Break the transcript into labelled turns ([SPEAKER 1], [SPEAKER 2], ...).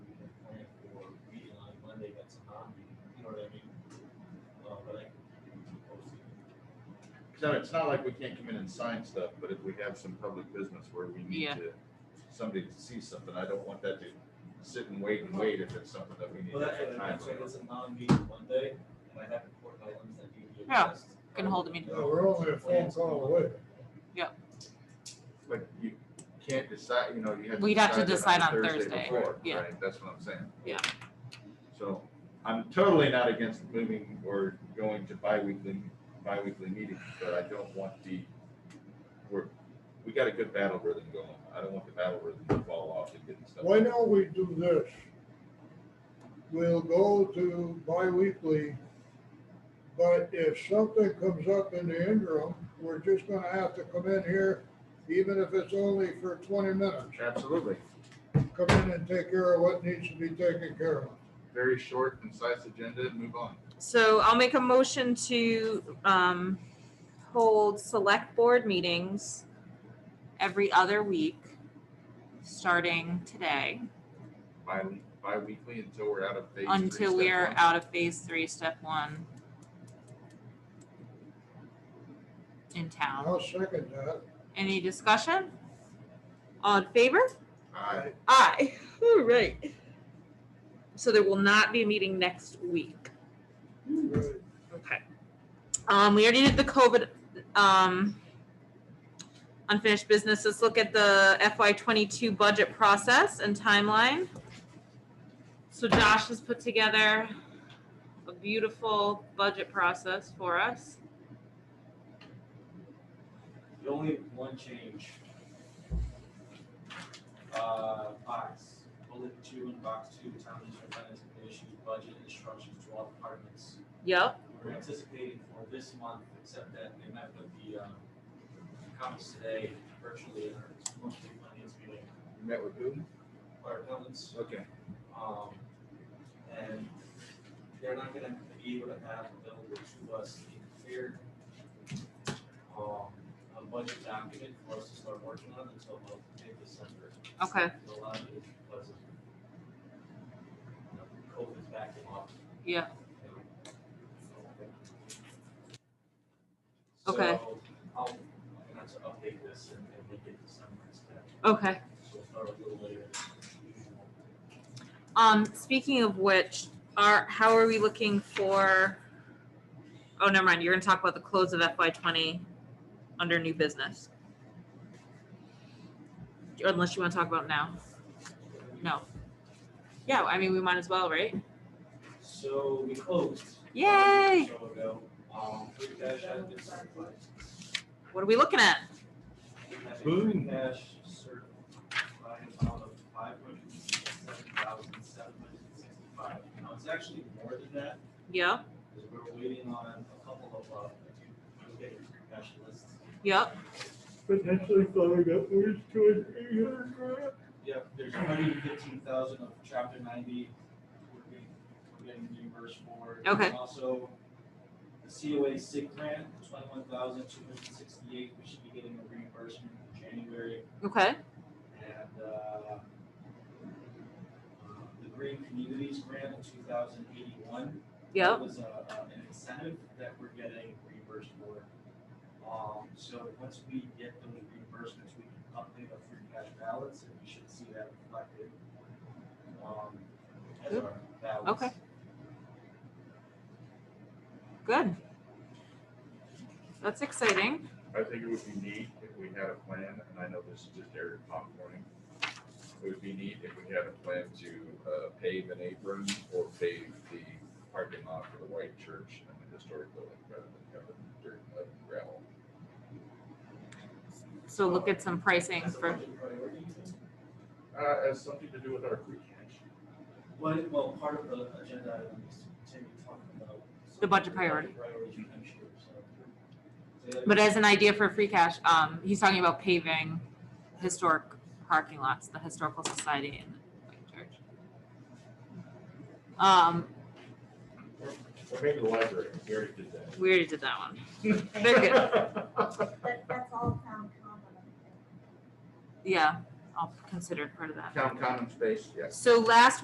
[SPEAKER 1] it's on me, you know what I mean? Uh, but I can post it.
[SPEAKER 2] So it's not like we can't come in and sign stuff, but if we have some public business where we need
[SPEAKER 3] Yeah.
[SPEAKER 2] to, somebody to see something, I don't want that to sit and wait and wait if it's something that we need.
[SPEAKER 1] Well,
[SPEAKER 2] to
[SPEAKER 1] that's
[SPEAKER 2] have
[SPEAKER 1] what,
[SPEAKER 2] time
[SPEAKER 1] that's why
[SPEAKER 2] for.
[SPEAKER 1] it's a non-meeting Monday, and I have important items that need to be
[SPEAKER 3] Yeah,
[SPEAKER 1] addressed.
[SPEAKER 3] can hold a meeting.
[SPEAKER 4] No, we're only a phone call away.
[SPEAKER 2] But you can't decide, you know, you have.
[SPEAKER 3] We'd have to decide
[SPEAKER 2] that
[SPEAKER 3] on Thursday,
[SPEAKER 2] before,
[SPEAKER 3] yeah.
[SPEAKER 2] right? That's what I'm saying.
[SPEAKER 3] Yeah.
[SPEAKER 2] So I'm totally not against moving or going to bi-weekly, bi-weekly meetings, but I don't want the, we're, we got a good battle rhythm going. I don't want the battle rhythm to fall off and getting stuff.
[SPEAKER 4] Why don't we do this? We'll go to bi-weekly, but if something comes up in the interim, we're just gonna have to come in here, even if it's only for twenty minutes.
[SPEAKER 2] Absolutely.
[SPEAKER 4] Come in and take care of what needs to be taken care of.
[SPEAKER 2] Very short, concise agenda and move on.
[SPEAKER 5] So I'll make a motion to um, hold select board meetings
[SPEAKER 3] every other week, starting today,
[SPEAKER 2] Bi, bi-weekly until we're out of phase. three,
[SPEAKER 3] until
[SPEAKER 2] step
[SPEAKER 3] we are
[SPEAKER 2] one.
[SPEAKER 3] out of phase three, step one. In town.
[SPEAKER 4] I'll second that.
[SPEAKER 3] Any discussion?
[SPEAKER 5] on favor?
[SPEAKER 2] Aye.
[SPEAKER 5] Aye. All right. So there will not be a meeting next week.
[SPEAKER 4] Good.
[SPEAKER 5] Okay. Um, we already did the COVID, um, unfinished business. Let's look at the FY twenty-two budget process and timeline. So Josh has put together a beautiful budget process for us.
[SPEAKER 1] The only one change. Uh, box, bullet two and box two, town administrator finance committee issues budget instructions to all departments.
[SPEAKER 5] Yep,
[SPEAKER 1] We We're anticipating for this month, except that they met with the, um, comments today virtually in our monthly finance meeting,
[SPEAKER 2] You Met with who?
[SPEAKER 1] our accountants.
[SPEAKER 2] Okay.
[SPEAKER 1] Um, and they're not gonna be able to have available to us a clear, um, a budget document for us to start working on until about mid-December.
[SPEAKER 5] okay.
[SPEAKER 1] A lot of it is because of, you know, COVID's backing off.
[SPEAKER 3] Yeah.
[SPEAKER 5] Okay.
[SPEAKER 1] So, I'll, I'm gonna have to update this and, and we get December instead,
[SPEAKER 5] Okay.
[SPEAKER 1] so we'll start a little later than usual.
[SPEAKER 5] Um, speaking of which, are, how are we looking for? Oh, never mind. You're gonna talk about the close of FY twenty under new business. Unless you wanna talk about it now. No. Yeah, I mean, we might as well, right?
[SPEAKER 1] So we closed. about a
[SPEAKER 5] Yay!
[SPEAKER 1] week or So ago, um, free cash has been certified.
[SPEAKER 5] What are we looking at?
[SPEAKER 1] We have a
[SPEAKER 2] Boom.
[SPEAKER 1] Free cash certified amount of five hundred and sixty-seven thousand, seven hundred and sixty-five. Now, it's actually more than that,
[SPEAKER 5] Yep,
[SPEAKER 1] because we're waiting on a couple of, uh, we're getting free cash lists.
[SPEAKER 5] yep.
[SPEAKER 4] Potentially going upwards to an eight hundred grand.
[SPEAKER 1] Yep, there's hundred and fifteen thousand of chapter ninety, we're getting, we're getting reimbursed for.
[SPEAKER 5] Okay.
[SPEAKER 1] And Also, the COA sick grant, twenty-one thousand two hundred and sixty-eight, we should be getting a reimbursement in January,
[SPEAKER 5] Okay,
[SPEAKER 1] and, uh, the Green Communities grant of two thousand eighty-one.
[SPEAKER 5] yep.
[SPEAKER 1] That was a, a- an incentive that we're getting reimbursed for. Um, so once we get those reimbursements, we can update our free cash balance and we should see that reflected. Um, as our balance.
[SPEAKER 5] Okay. Good. That's exciting.
[SPEAKER 2] I think it would be neat if we had a plan, and I know this is just Eric popcorning. It would be neat if we had a plan to uh, pave an apron or pave the parking lot for the white church and the historic building rather than cover it in dirt and gravel.
[SPEAKER 3] So look at some pricing
[SPEAKER 1] As a
[SPEAKER 3] for,
[SPEAKER 1] budget priority, you think?
[SPEAKER 2] Uh, has something to do with our free cash.
[SPEAKER 1] Well, it- well, part of the agenda item is Tim, you talking about. some
[SPEAKER 3] The budget
[SPEAKER 1] of
[SPEAKER 3] priority.
[SPEAKER 1] Priorities for next year, so. So that-
[SPEAKER 3] but as an idea for free cash, um, he's talking about paving historic parking lots, the historical society and the white church. Um,
[SPEAKER 2] Or maybe the library, we already did that.
[SPEAKER 5] We already did that one. Very
[SPEAKER 6] But that's all town common.
[SPEAKER 3] yeah, I'll consider it part of that.
[SPEAKER 2] Town common space, yes.
[SPEAKER 5] So last